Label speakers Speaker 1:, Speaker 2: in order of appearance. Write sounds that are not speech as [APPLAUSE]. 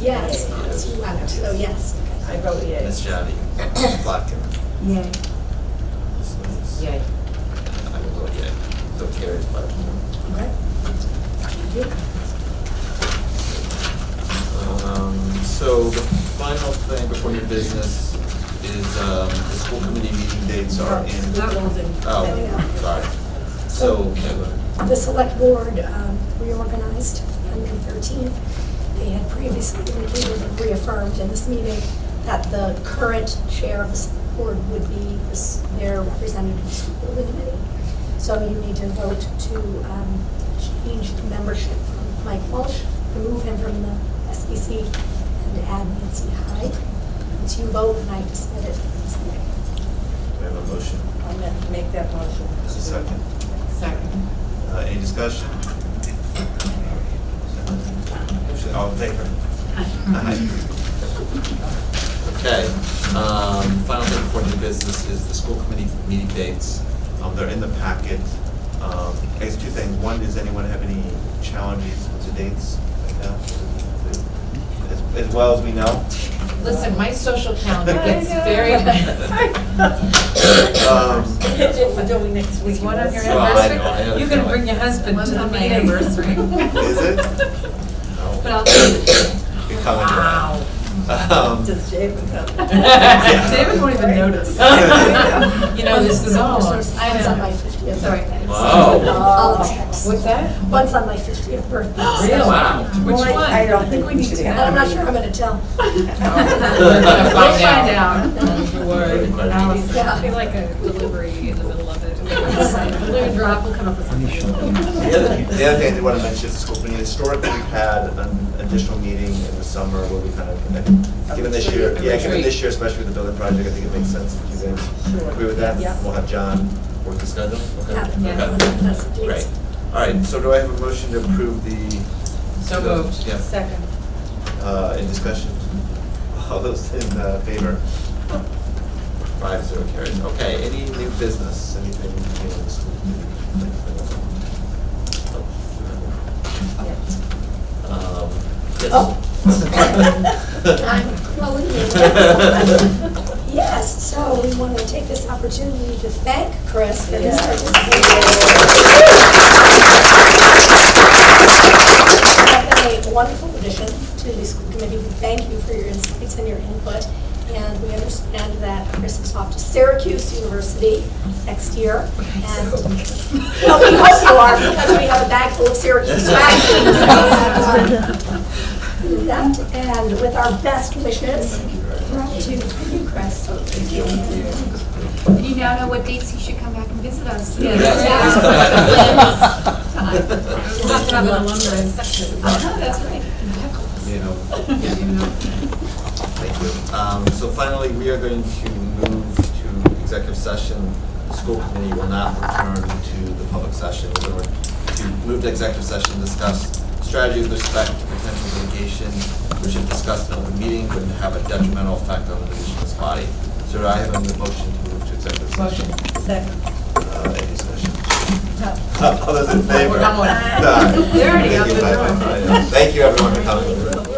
Speaker 1: Yes, it's eleven, so yes.
Speaker 2: I vote yay.
Speaker 3: [COUGHS]
Speaker 4: Ms. Jowdy, Plotkin,
Speaker 3: Yay.
Speaker 4: Ms. Lewis.
Speaker 3: Yay.
Speaker 4: I will vote yea. So carries five to one.
Speaker 1: Okay.
Speaker 4: Um, So the final thing before your business is um, the school committee meeting dates are in.
Speaker 2: Not Walden.
Speaker 4: Oh, sorry. So,
Speaker 1: The select board um, reorganized on May 13th. They had previously indicated and reaffirmed in this meeting that the current chair of the select board would be this- their representative to the school building committee. So you need to vote to um, change the membership from Mike Walsh, remove him from the SBC, and add Nancy Hyde. It's you vote, and I just submit it. this way.
Speaker 4: we have a motion.
Speaker 2: I'll ma- make that motion.
Speaker 4: Just a second.
Speaker 2: Second.
Speaker 4: Uh, Any discussion? All in favor? Aye. Okay, um, final thing before new business is the school committee meeting dates.
Speaker 5: Um, they're in the packet. Um, I guess two things. One, does anyone have any challenges to dates right now? As- As well as we know.
Speaker 6: Listen, my social calendar
Speaker 5: I
Speaker 6: gets
Speaker 2: know. [LAUGHS]
Speaker 6: very,
Speaker 5: Um,
Speaker 6: [LAUGHS]
Speaker 2: We're doing next week.
Speaker 6: is one on your
Speaker 4: Well, I know, I
Speaker 6: anniversary? You
Speaker 4: understand.
Speaker 6: can bring your husband to
Speaker 3: One's
Speaker 6: the
Speaker 3: on my
Speaker 6: meeting. [LAUGHS]
Speaker 3: anniversary.
Speaker 5: Is it?
Speaker 6: But I'll tell you.
Speaker 5: You're coming around. Um,
Speaker 2: Does Jacob
Speaker 6: [LAUGHS]
Speaker 2: come?
Speaker 6: David won't even
Speaker 2: [LAUGHS]
Speaker 6: notice. You know, this is all.
Speaker 1: One's on my 50th
Speaker 6: Sorry.
Speaker 1: birthday.
Speaker 4: Wow.
Speaker 1: I'll text.
Speaker 6: What's that?
Speaker 1: Once on my 50th birthday.
Speaker 6: Really?
Speaker 4: Wow.
Speaker 6: Which one?
Speaker 2: I don't think we
Speaker 6: [LAUGHS]
Speaker 2: need to.
Speaker 1: And I'm not sure I'm gonna tell.
Speaker 6: We'll find out.
Speaker 4: Pretty quick.
Speaker 1: Yeah.
Speaker 7: Be like a delivery in the middle of
Speaker 6: Listen,
Speaker 7: it.
Speaker 6: Blue Drop will come up with something.
Speaker 5: The other, the other thing I did want to mention is the school committee, historically, we've had an additional meeting in the summer where we kind of, given this year, yeah, given this year, especially with the building project, I think it makes sense if you guys agree with that.
Speaker 2: Yeah.
Speaker 5: We'll have John work
Speaker 4: Work the
Speaker 5: this
Speaker 4: schedule? Okay.
Speaker 1: Yeah.
Speaker 4: Okay.
Speaker 1: That's the
Speaker 4: Great.
Speaker 1: dates.
Speaker 4: All right, so do I have a motion to approve the?
Speaker 6: So moved.
Speaker 4: Yeah.
Speaker 2: Second.
Speaker 5: uh, in discussion. All those in uh, favor?
Speaker 4: Five zero carries. Okay, any new business, anything new in the school committee? Um,
Speaker 1: I'm
Speaker 4: yes.
Speaker 1: calling you. Yes, so we want to take this opportunity to thank Chris for his
Speaker 2: Yeah.
Speaker 1: participation. You've been a wonderful addition to the school committee. We thank you for your insights and your input. And we understand that Chris is off to Syracuse University next year. And [LAUGHS] Well, we hope you are, because we have a bag full
Speaker 4: [LAUGHS]
Speaker 1: of Syracuse swag. With That, and with our best wishes to you, Chris.
Speaker 7: You now know what dates he should come back and visit us.
Speaker 6: Yeah.
Speaker 5: [LAUGHS]
Speaker 4: Yes,
Speaker 7: We'll
Speaker 4: please
Speaker 7: have
Speaker 4: come
Speaker 7: an
Speaker 5: [LAUGHS]
Speaker 4: back.
Speaker 7: alumni section.
Speaker 4: Uh-huh,
Speaker 7: [LAUGHS] that's right.
Speaker 4: [LAUGHS] You know, thank you. Um, so finally, we are going to move to executive session. The school committee will not return to the public session. We're going to move to executive session, to discuss strategy with respect to potential litigation, which if discussed in open meeting would have a detrimental effect on the position of this body. So do I have a motion to move to executive session.
Speaker 2: Second.
Speaker 4: Uh, any discussion?
Speaker 5: All those in favor?
Speaker 6: We're not.
Speaker 5: Done.
Speaker 6: They're already out [LAUGHS]
Speaker 5: Thank you,
Speaker 6: the
Speaker 5: bye-bye.
Speaker 6: door.
Speaker 5: Thank you, everyone, for coming.